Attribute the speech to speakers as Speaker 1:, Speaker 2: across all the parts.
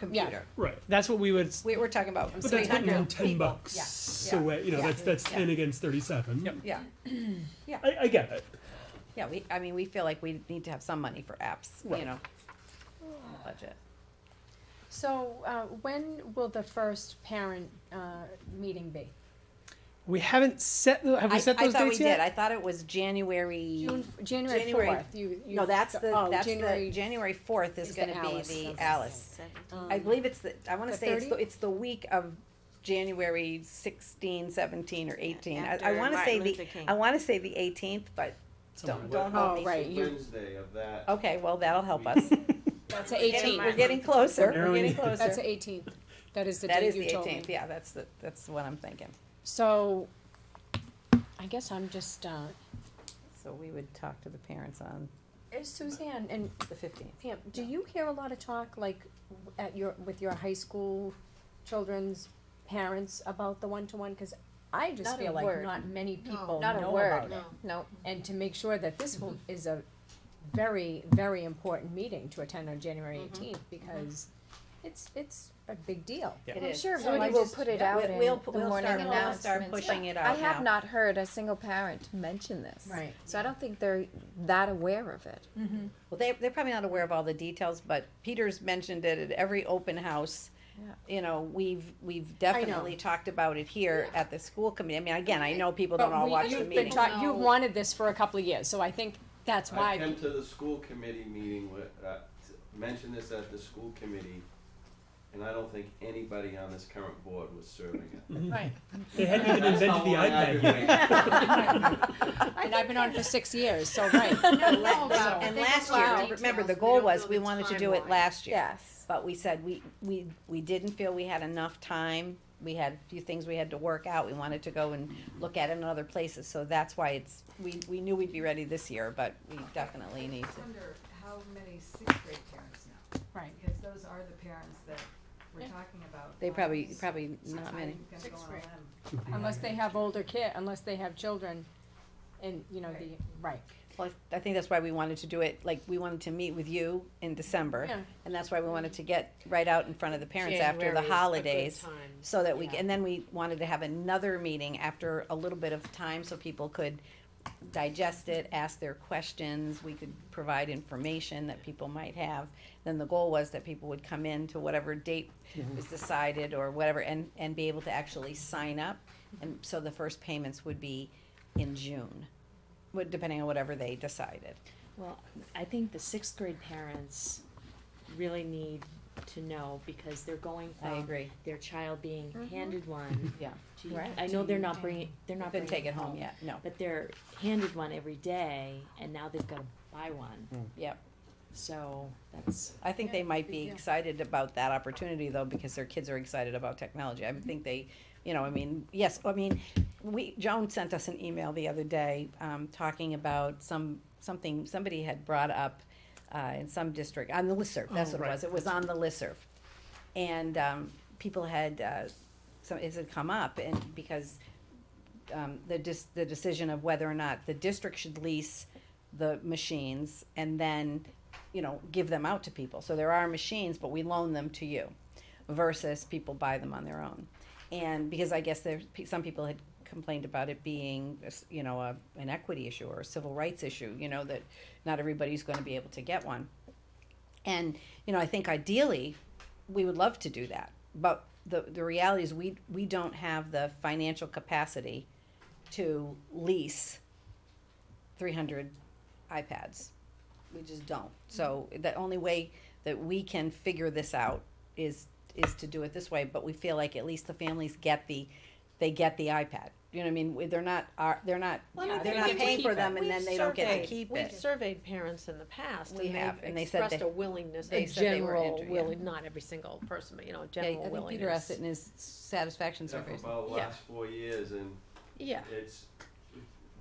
Speaker 1: computer.
Speaker 2: Right, that's what we would,
Speaker 1: We, we're talking about from
Speaker 2: but that's putting in
Speaker 1: 300
Speaker 2: ten
Speaker 1: people.
Speaker 2: bucks
Speaker 1: Yeah, yeah,
Speaker 2: away, you know,
Speaker 1: yeah,
Speaker 2: that's, that's
Speaker 1: yeah.
Speaker 2: ten against thirty-seven.
Speaker 1: Yeah,
Speaker 2: I, I get it,
Speaker 1: yeah, we, I mean, we feel like we need to have some money for apps, you know, in the budget.
Speaker 3: So, uh, when will the first parent, uh, meeting be?
Speaker 2: we haven't set, the- have
Speaker 1: I,
Speaker 2: we
Speaker 1: I
Speaker 2: set those
Speaker 1: thought we
Speaker 2: dates
Speaker 1: did,
Speaker 2: yet?
Speaker 1: I thought it was January,
Speaker 3: June, January
Speaker 1: January.
Speaker 3: fourth, you, you.
Speaker 1: no, that's the,
Speaker 3: oh,
Speaker 1: that's the,
Speaker 3: January-
Speaker 1: January fourth is
Speaker 3: is
Speaker 1: gonna be
Speaker 3: the Alice.
Speaker 1: the
Speaker 3: That's the
Speaker 1: Alice. I
Speaker 3: um,
Speaker 1: believe it's the, I wanna
Speaker 3: the
Speaker 1: say it's, the
Speaker 3: 30?
Speaker 1: it's the week of January 16, 17, or eighteen, I, I
Speaker 4: after
Speaker 1: wanna say
Speaker 4: Martin
Speaker 1: the,
Speaker 4: Luther King.
Speaker 1: I wanna say the eighteenth, but don't,
Speaker 2: Somewhere.
Speaker 1: don't hold
Speaker 3: Oh,
Speaker 1: me.
Speaker 3: right,
Speaker 5: It's
Speaker 3: you-
Speaker 5: Wednesday of that.
Speaker 1: Okay, well, that'll help us.
Speaker 3: That's the
Speaker 1: We're getting-
Speaker 3: eighteenth,
Speaker 1: We're getting closer, we're
Speaker 2: Narrowing
Speaker 1: getting
Speaker 2: it.
Speaker 1: closer.
Speaker 3: that's the eighteenth, that is the
Speaker 1: That
Speaker 3: date
Speaker 1: is
Speaker 3: you
Speaker 1: the
Speaker 3: told me.
Speaker 1: eighteenth, yeah, that's the, that's what I'm thinking.
Speaker 3: So, I guess I'm just, uh,
Speaker 1: So we would talk to the parents on
Speaker 3: Suzanne and
Speaker 1: the fifteenth.
Speaker 3: Pam, do you hear a lot of talk, like, w- at your, with your high school children's parents about the one-to-one? Cause I just
Speaker 4: Not a
Speaker 3: feel like
Speaker 4: word.
Speaker 3: not many people
Speaker 4: not a
Speaker 3: know
Speaker 4: word,
Speaker 3: about it.
Speaker 4: no. No.
Speaker 3: And to make sure that this
Speaker 4: Mm-hmm.
Speaker 3: will, is a very, very important meeting to attend on January
Speaker 4: Mm-hmm.
Speaker 3: eighteenth, because it's, it's a big deal.
Speaker 2: Yeah.
Speaker 1: It
Speaker 6: I'm
Speaker 1: is.
Speaker 6: sure
Speaker 3: So I
Speaker 6: Woody will
Speaker 3: just-
Speaker 6: put it
Speaker 1: yeah,
Speaker 6: out
Speaker 1: we'll-
Speaker 6: in
Speaker 1: we'll-
Speaker 6: the
Speaker 1: we'll
Speaker 6: morning
Speaker 1: start- we'll start
Speaker 6: announcements.
Speaker 1: pushing it
Speaker 6: but
Speaker 1: out
Speaker 6: I have
Speaker 1: now.
Speaker 6: not heard a single parent mention this.
Speaker 3: Right.
Speaker 6: So I don't think they're that aware of it.
Speaker 1: Well, they, they're probably not aware of all the details, but Peter's mentioned it at every open house.
Speaker 6: Yeah.
Speaker 1: You know, we've, we've definitely talked about it here at the school committee. I mean, again, I know people don't
Speaker 3: But
Speaker 1: all
Speaker 3: we-
Speaker 1: watch the
Speaker 3: you've been
Speaker 1: meeting.
Speaker 3: talk- You've
Speaker 4: No.
Speaker 3: wanted this for a couple of years, so I think that's
Speaker 5: I
Speaker 3: why,
Speaker 5: came to the school committee meeting with, uh, t- mentioned this at the school committee, and I don't think anybody on this current board was serving it.
Speaker 2: They hadn't even
Speaker 5: That's
Speaker 2: invented
Speaker 5: how
Speaker 2: the
Speaker 5: long I've
Speaker 2: iPad
Speaker 5: been
Speaker 2: yet.
Speaker 5: waiting.
Speaker 3: and I've been on for six years, so, right.
Speaker 1: And
Speaker 4: know
Speaker 1: la-
Speaker 4: about
Speaker 1: and
Speaker 4: it. They
Speaker 1: last
Speaker 4: don't know
Speaker 1: year,
Speaker 4: the
Speaker 1: remember, the
Speaker 4: details.
Speaker 1: goal
Speaker 4: They don't
Speaker 1: was,
Speaker 4: know
Speaker 1: we
Speaker 4: the
Speaker 1: wanted to do it
Speaker 4: timeline.
Speaker 1: last year.
Speaker 6: Yes.
Speaker 1: But we said we, we, we didn't feel we had enough time. We had a few things we had to work out. We wanted to go and look at it in other places. So that's why it's, we, we knew we'd be ready this year, but we definitely need
Speaker 7: I
Speaker 1: to.
Speaker 7: wonder how many sixth grade parents know,
Speaker 3: Right.
Speaker 7: because those are the parents that we're talking about.
Speaker 1: They
Speaker 7: on
Speaker 1: probably,
Speaker 7: this.
Speaker 1: probably
Speaker 7: I'm
Speaker 1: not many.
Speaker 7: gonna go on a limb.
Speaker 3: Unless they have older kid, unless they have children, and, you know, the, right.
Speaker 1: Well, I think that's why we wanted to do it, like, we wanted to meet with you in December.
Speaker 3: Yeah.
Speaker 1: And that's why we wanted to get right out in front of the parents after the holidays. So that we,
Speaker 3: Yeah.
Speaker 1: and then we wanted to have another meeting after a little bit of time so people could digest it, ask their questions, we could provide information that people might have. Then the goal was that people would come in to whatever date was decided or whatever and, and be able to actually sign up. And so the first payments would be in June, would- depending on whatever they decided.
Speaker 8: Well, I think the sixth grade parents really need to know because they're going
Speaker 1: I
Speaker 8: from
Speaker 1: agree.
Speaker 8: their child being handed one.
Speaker 1: Yeah.
Speaker 8: to-
Speaker 1: Right.
Speaker 8: I know they're not bringing, they're not
Speaker 1: Couldn't
Speaker 8: bringing
Speaker 1: take it home yet, no,
Speaker 8: But they're handed one every day, and now they've got to buy one.
Speaker 1: yep.
Speaker 8: So that's
Speaker 1: I think they might be excited about that opportunity though, because their kids are excited about technology. I think they, you know, I mean, yes, I mean, we, Joan sent us an email the other day, um, talking about some, something, somebody had brought up, uh, in some district, on the listserv, that's what
Speaker 2: Oh,
Speaker 1: it
Speaker 2: right.
Speaker 1: was, it was on the listserv. And, um, people had, uh, some, it had come up and because, um, the dis- the decision of whether or not the district should lease the machines and then, you know, give them out to people. So there are machines, but we loan them to you versus people buy them on their own. And because I guess there, pe- some people had complained about it being, a s- you know, a, an equity issue or a civil rights issue, you know, that not everybody's going to be able to get one. And, you know, I think ideally, we would love to do that. But the, the reality is we, we don't have the financial capacity to lease three hundred iPads. We just don't. So the only way that we can figure this out is, is to do it this way, but we feel like at least the families get the, they get the iPad. You know what I mean? We- They're not, are, they're not,
Speaker 4: Well,
Speaker 3: I
Speaker 1: they're
Speaker 3: think
Speaker 1: not
Speaker 3: they get to
Speaker 1: paying for
Speaker 3: keep it.
Speaker 1: them and then they don't get to
Speaker 4: surveyed-
Speaker 1: keep
Speaker 4: We've
Speaker 1: it.
Speaker 4: surveyed parents in the past,
Speaker 1: We have, and
Speaker 4: and
Speaker 1: they
Speaker 4: they've
Speaker 1: said
Speaker 4: expressed
Speaker 1: they-
Speaker 4: a willingness,
Speaker 1: they
Speaker 4: a
Speaker 1: said they were
Speaker 4: general
Speaker 1: into- yeah.
Speaker 4: willing, not every single person, but you know, a
Speaker 1: Yeah, I
Speaker 4: general
Speaker 1: think Peter asked
Speaker 4: willingness.
Speaker 1: it in his satisfaction
Speaker 5: Yeah, for
Speaker 1: survey.
Speaker 5: about the
Speaker 4: Yeah.
Speaker 5: last four years, and
Speaker 4: Yeah,
Speaker 5: it's,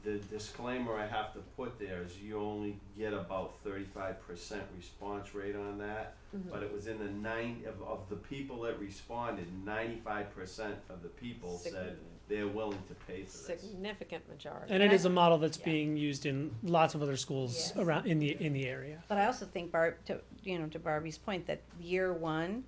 Speaker 5: the disclaimer I have to put there is you only get about thirty-five percent response rate on that. But it was in the nine, of, of the people that responded, ninety-five percent of the people
Speaker 4: Sig-
Speaker 5: said they're willing to pay for this.
Speaker 4: significant majority.
Speaker 2: And it is a model that's
Speaker 4: Yeah.
Speaker 2: being used in lots of other schools
Speaker 4: Yes.
Speaker 2: around, in the, in the area.
Speaker 1: But I also think Barb, to, you know, to Barbie's point, that year one,